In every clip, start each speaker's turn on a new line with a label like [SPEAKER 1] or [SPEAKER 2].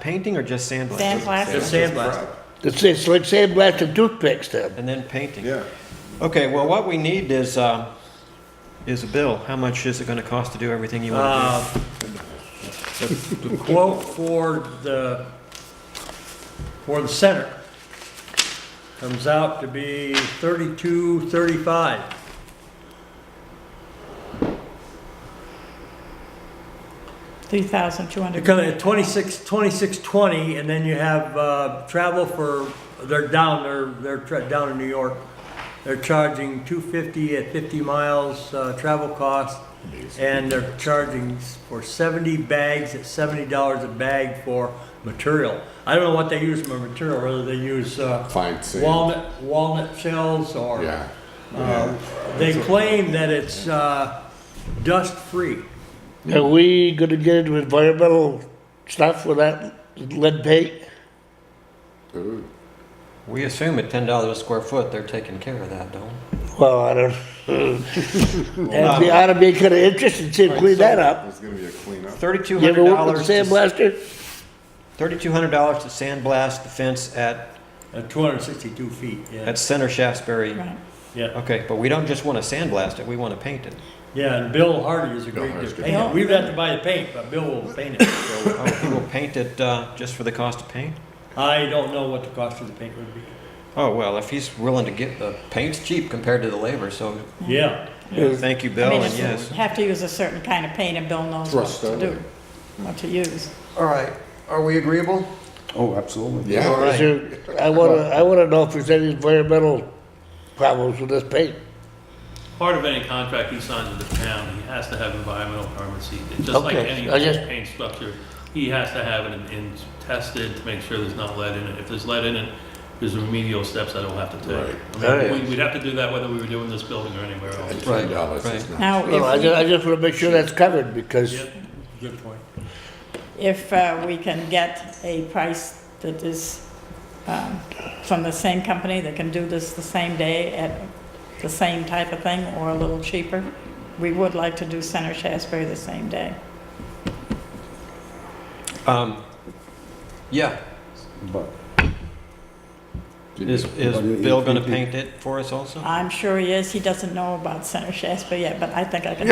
[SPEAKER 1] Painting or just sandblasting?
[SPEAKER 2] Sandblasting.
[SPEAKER 3] Just sandblast.
[SPEAKER 4] It's, it's like sandblast and toothpicks then.
[SPEAKER 1] And then painting.
[SPEAKER 3] Yeah.
[SPEAKER 1] Okay, well, what we need is, uh, is a bill. How much is it gonna cost to do everything you wanna
[SPEAKER 2] Uh,
[SPEAKER 3] The- the-
[SPEAKER 2] Quote for the, for the center comes out to be thirty-two, thirty-five.
[SPEAKER 5] Three thousand two hundred.
[SPEAKER 2] Because at twenty-six, twenty-six, twenty, and then you have, uh, travel for, they're down, they're, they're tra- down in New York. They're charging two fifty at fifty miles, uh, travel cost. And they're charging s- for seventy bags at seventy dollars a bag for material. I don't know what they use for material, whether they use, uh,
[SPEAKER 6] Fine sand.
[SPEAKER 2] walnut, walnut shells or.
[SPEAKER 6] Yeah.
[SPEAKER 2] Uh, they claim that it's, uh, dust-free.
[SPEAKER 4] Are we gonna get into environmental stuff with that lead paint?
[SPEAKER 6] Ooh.
[SPEAKER 1] do? We assume at ten dollars a square foot, they're taking care of that, don't?
[SPEAKER 4] Well, I don't. And the ought to be kinda interested to see if clean that up.
[SPEAKER 6] It's gonna be a cleanup.
[SPEAKER 1] Thirty-two
[SPEAKER 4] You
[SPEAKER 1] hundred
[SPEAKER 4] ever work with a
[SPEAKER 1] dollars.
[SPEAKER 4] sandblaster?
[SPEAKER 1] Thirty-two hundred dollars to sandblast the fence at,
[SPEAKER 2] At 262 feet, yeah.
[SPEAKER 1] at Center Shaftesbury.
[SPEAKER 5] Right.
[SPEAKER 2] Yeah,
[SPEAKER 1] Okay, but we don't just wanna sandblast it, we wanna paint it.
[SPEAKER 2] yeah, and Bill Hardy is a
[SPEAKER 6] Bill
[SPEAKER 2] great
[SPEAKER 6] Hardy's
[SPEAKER 2] good
[SPEAKER 6] good.
[SPEAKER 2] painter. We've had to buy the paint, but Bill will paint it.
[SPEAKER 1] Oh, he will paint it, uh, just for the cost of paint?
[SPEAKER 2] I don't know what the cost of the paint would be.
[SPEAKER 1] Oh, well, if he's willing to get, the paint's cheap compared to the labor, so
[SPEAKER 2] Yeah,
[SPEAKER 1] thank you,
[SPEAKER 5] I
[SPEAKER 1] Bill,
[SPEAKER 5] mean,
[SPEAKER 1] and
[SPEAKER 5] it's-
[SPEAKER 1] yes.
[SPEAKER 5] have to use a certain kind of paint and Bill knows what
[SPEAKER 6] Thrust
[SPEAKER 5] to do,
[SPEAKER 6] only.
[SPEAKER 5] what to use.
[SPEAKER 7] All right, are we agreeable?
[SPEAKER 8] Oh, absolutely.
[SPEAKER 6] Yeah.
[SPEAKER 4] Is there, I wanna, I wanna know if there's any environmental problems with this paint.
[SPEAKER 9] Part of any contract he signs with the town, he has to have environmental permits. He- Just like
[SPEAKER 4] Okay,
[SPEAKER 9] any
[SPEAKER 4] I just-
[SPEAKER 9] paint structure, he has to have it in- in- tested to make sure there's not lead in it. If there's lead in it, there's remedial steps I don't have to
[SPEAKER 6] Right.
[SPEAKER 9] take. I
[SPEAKER 4] Alright.
[SPEAKER 9] mean, we- we'd have to do that whether we were doing this building or anywhere
[SPEAKER 6] At
[SPEAKER 9] else.
[SPEAKER 6] ten dollars
[SPEAKER 1] Right.
[SPEAKER 6] is not.
[SPEAKER 5] Now,
[SPEAKER 4] No, I
[SPEAKER 5] if,
[SPEAKER 4] just, I just wanna make sure that's covered because
[SPEAKER 9] Yep.
[SPEAKER 2] good point.
[SPEAKER 5] we- if uh, we can get a price that is um, from the same company that can do this the same day at the same type of thing or a little cheaper, we would like to do Center Shaftesbury the same day.
[SPEAKER 1] Um, yeah,
[SPEAKER 8] But
[SPEAKER 1] Is, is
[SPEAKER 8] But if-
[SPEAKER 1] Bill
[SPEAKER 8] if
[SPEAKER 1] gonna
[SPEAKER 8] you-
[SPEAKER 1] paint it for us also?
[SPEAKER 5] I'm sure he is, he doesn't know about Center Shaftesbury yet, but I think I can.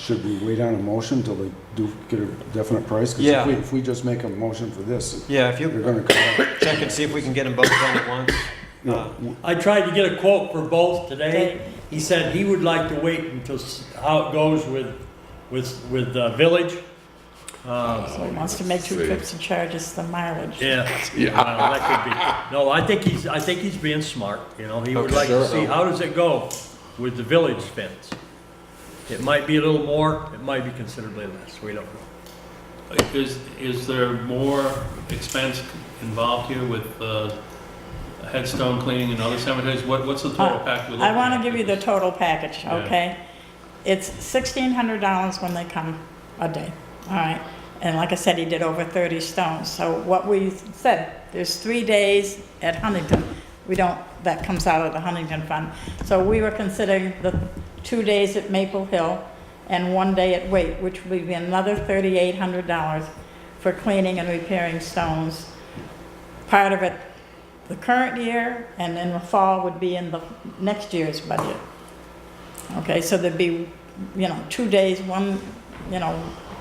[SPEAKER 8] should we wait on a motion till they do get a definite price? 'Cause
[SPEAKER 1] Yeah.
[SPEAKER 8] if we, if we just make a motion for this,
[SPEAKER 1] Yeah, if
[SPEAKER 8] they're
[SPEAKER 1] you
[SPEAKER 8] gonna come out.
[SPEAKER 1] check and see if we can get them both done at once.
[SPEAKER 8] you know,
[SPEAKER 1] Uh,
[SPEAKER 2] I tried to get a quote for both today. He said he would like to wait until s- how it goes with, with, with the village. Uh,
[SPEAKER 5] So he wants to make two
[SPEAKER 6] See.
[SPEAKER 5] trips and charges the mileage.
[SPEAKER 2] Yeah, Well, that could be- no, I think he's, I think he's being smart, you know, he would
[SPEAKER 1] Okay.
[SPEAKER 2] like to
[SPEAKER 6] Sure.
[SPEAKER 2] see, how does it go with the village fence? It might be a little more, it might be considerably less, we don't know.
[SPEAKER 9] Is, is there more expense involved here with uh, headstone cleaning and other cemeteries? What, what's the total package?
[SPEAKER 5] Uh, I want to give you the total package,
[SPEAKER 9] Yeah.
[SPEAKER 5] okay? It's sixteen hundred dollars when they come a day, all right? And like I said, he did over thirty stones, so what we said, there's three days at Huntington. We don't, that comes out of the Huntington Fund. So we were considering the two days at Maple Hill and one day at Waite, which would be another thirty-eight hundred dollars for cleaning and repairing stones. Part of it the current year, and then the fall would be in the next year's budget. Okay, so there'd be, you know, two days, one, you know,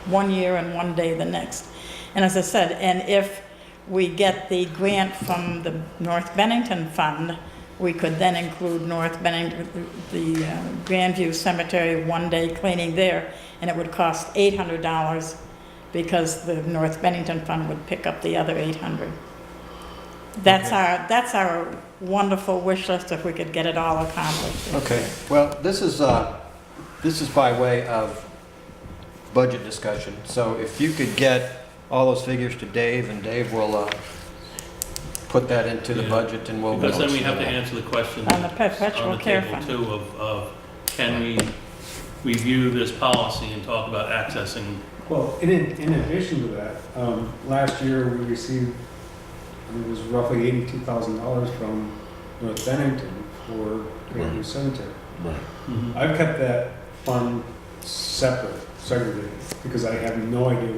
[SPEAKER 5] one year and one day the next. And as I said, and if we get the grant from the North Bennington Fund, we could then include North Bennington, the uh, Grandview Cemetery, one day cleaning there, and it would cost eight hundred dollars because the North Bennington Fund would pick up the other eight hundred. That's our, that's our wonderful wish list if we could get it all accomplished.
[SPEAKER 1] Okay, well, this is, uh, this is by way of budget discussion. So if you could get all those figures to Dave, and Dave will, uh, put that into the
[SPEAKER 9] Yeah.
[SPEAKER 1] budget, and we'll.
[SPEAKER 9] Because then we have to answer the question.
[SPEAKER 5] On the perpetual
[SPEAKER 9] on the
[SPEAKER 5] care
[SPEAKER 9] table,
[SPEAKER 5] fund.
[SPEAKER 9] too, of, of can we review this policy and talk about accessing?
[SPEAKER 10] Well, in, in addition to that, um, last year we received, I think it was roughly eighty-two thousand dollars from North Bennington for Grandview Cemetery.
[SPEAKER 6] Right.
[SPEAKER 10] I've kept that fund separate, segregated, because I have no idea